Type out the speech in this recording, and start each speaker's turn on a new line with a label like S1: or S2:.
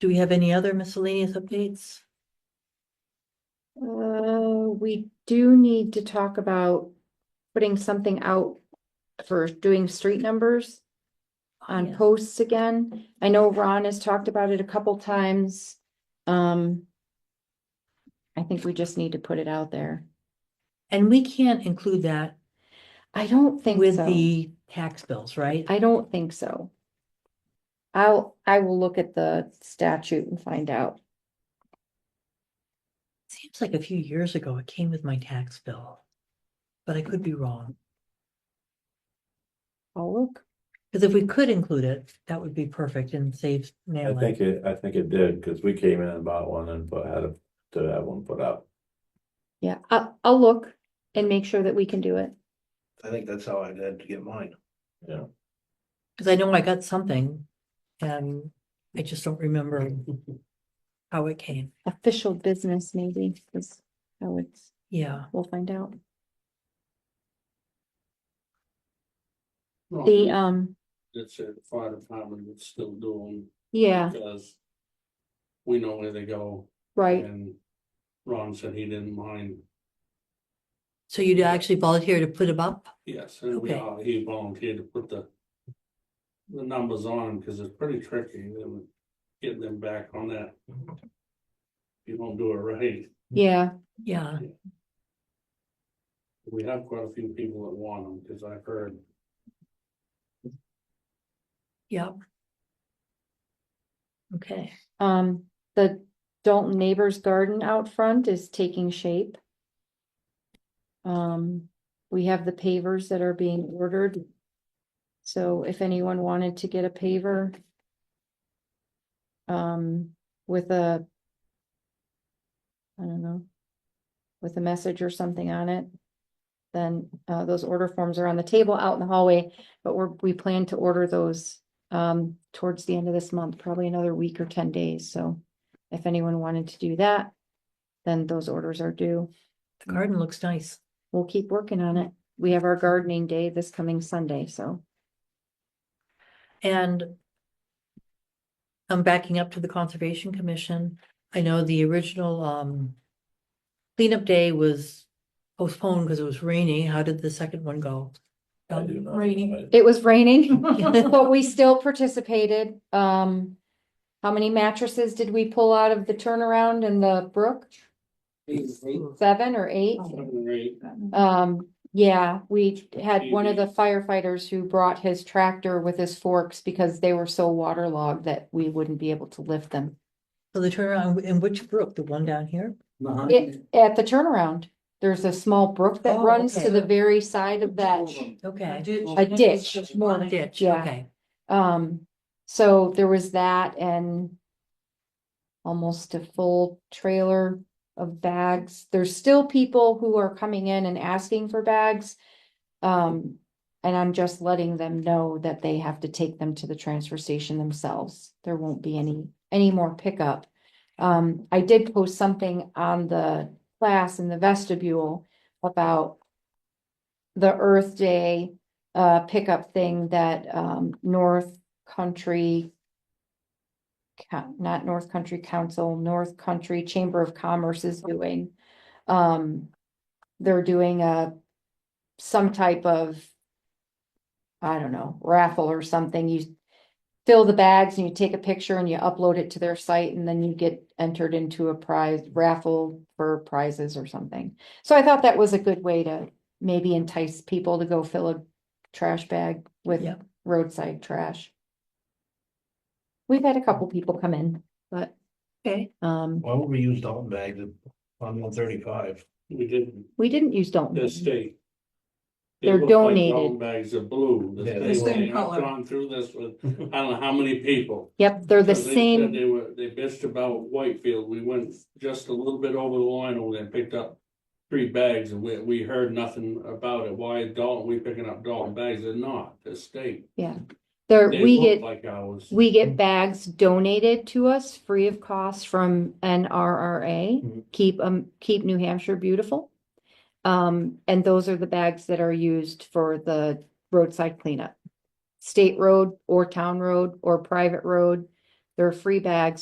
S1: Do we have any other miscellaneous updates?
S2: Uh, we do need to talk about putting something out for doing street numbers on
S1: Yeah.
S2: posts again. I know Ron has talked about it a couple times. Um. I think we just need to put it out there.
S1: And we can't include that
S2: I don't think
S1: with
S2: so.
S1: the tax bills, right?
S2: I don't think so. I'll, I will look at the statute and find out.
S1: Seems like a few years ago it came with my tax bill. But I could be wrong,
S2: I'll look.
S1: because if we could include it, that would be perfect and save
S3: I
S1: Natalie.
S3: think it, I think it did, cause we came in and bought one and put, had to have one put up.
S2: Yeah, I, I'll look and make sure that we can do it.
S4: I think that's how I did to get mine.
S3: Yeah,
S1: Because I know I got something and I just don't remember how it came.
S2: Official business maybe is how it's,
S1: Yeah,
S2: we'll find out. The, um,
S5: That's it, the fire department would still do
S2: yeah,
S5: them, because. We know where they go,
S2: right,
S5: and Ron said he didn't mind,
S1: so you'd actually volunteer to put them up?
S5: yes, and we
S1: Okay.
S5: all, he volunteered to put the. The numbers on them, because it's pretty tricky, and getting them back on that. If You don't do it right,
S2: yeah,
S1: Yeah,
S5: we have quite a few people that want them, because I've heard,
S1: yeah. Okay,
S2: um, the Dalton Neighbors Garden out front is taking shape. Um, we have the pavers that are being ordered. So if anyone wanted to get a paver. Um, with a. I don't know. With a message or something on it. Then, uh, those order forms are on the table out in the hallway, but we're, we plan to order those. Um, towards the end of this month, probably another week or ten days, so. If anyone wanted to do that. Then those orders are due.
S1: the garden looks nice.
S2: We'll keep working on it. We have our gardening day this coming Sunday, so
S1: And I'm backing up to the Conservation Commission. I know the original um cleanup day was postponed because it was rainy. How did the second one go?
S3: I do not.
S6: Rainy.
S2: it was raining, but we still participated. Um, how many mattresses did we pull out of the turnaround in the brook? Seven or eight?
S5: seven or eight,
S2: Um, yeah, we had one of the firefighters who brought his tractor with his forks because they were so waterlogged that we wouldn't be able to lift them.
S1: So the turnaround in which brook? The one down here?
S2: It, at the turnaround, there's a small brook that
S1: Oh,
S2: runs to
S1: okay.
S2: the very side of that.
S1: Okay.
S2: A ditch.
S1: One ditch,
S2: Yeah.
S1: okay.
S2: Um, so there was that and. Almost a full trailer of bags. There's still people who are coming in and asking for bags. Um, and I'm just letting them know that they have to take them to the transfer station themselves. There won't be any, any more pickup. Um, I did post something on the class in the vestibule about. The Earth Day uh pickup thing that um North Country. Coun- not North Country Council, North Country Chamber of Commerce is doing. Um, they're doing a, some type of. I don't know, raffle or something, you fill the bags and you take a picture and you upload it to their site and then you get entered into a prize raffle for prizes or something. So I thought that was a good way to maybe entice people to go fill a trash bag with
S1: Yep.
S2: roadside trash. We've had a couple people come in, but,
S1: Okay,
S2: um,
S4: Why would we use Dalton bags on one thirty-five?
S5: we didn't,
S2: we didn't use Dalton.
S5: the state. They
S2: They're
S5: look like
S2: donated.
S5: brown Bags of blue,
S4: Yeah,
S5: the
S4: they're
S5: state,
S6: same
S5: I've
S6: color.
S5: gone through this with, I don't know how many people.
S2: Yep, they're the
S5: Because they said
S2: same,
S5: They were, they bitched about Whitefield, we went just a little bit over the line over there and picked up. Three bags and we, we heard nothing about it, why Dalton, we picking up Dalton bags, they're not, they're state.
S2: they're,
S5: They
S2: we
S5: look
S2: get,
S5: Like ours.
S2: we get bags donated to us free of cost from NRRA.
S5: Mm-hmm.
S4: Mhm.
S2: Keep, um, keep New Hampshire beautiful. Um, and those are the bags that are used for the roadside cleanup. State road or town road or private road, they're free bags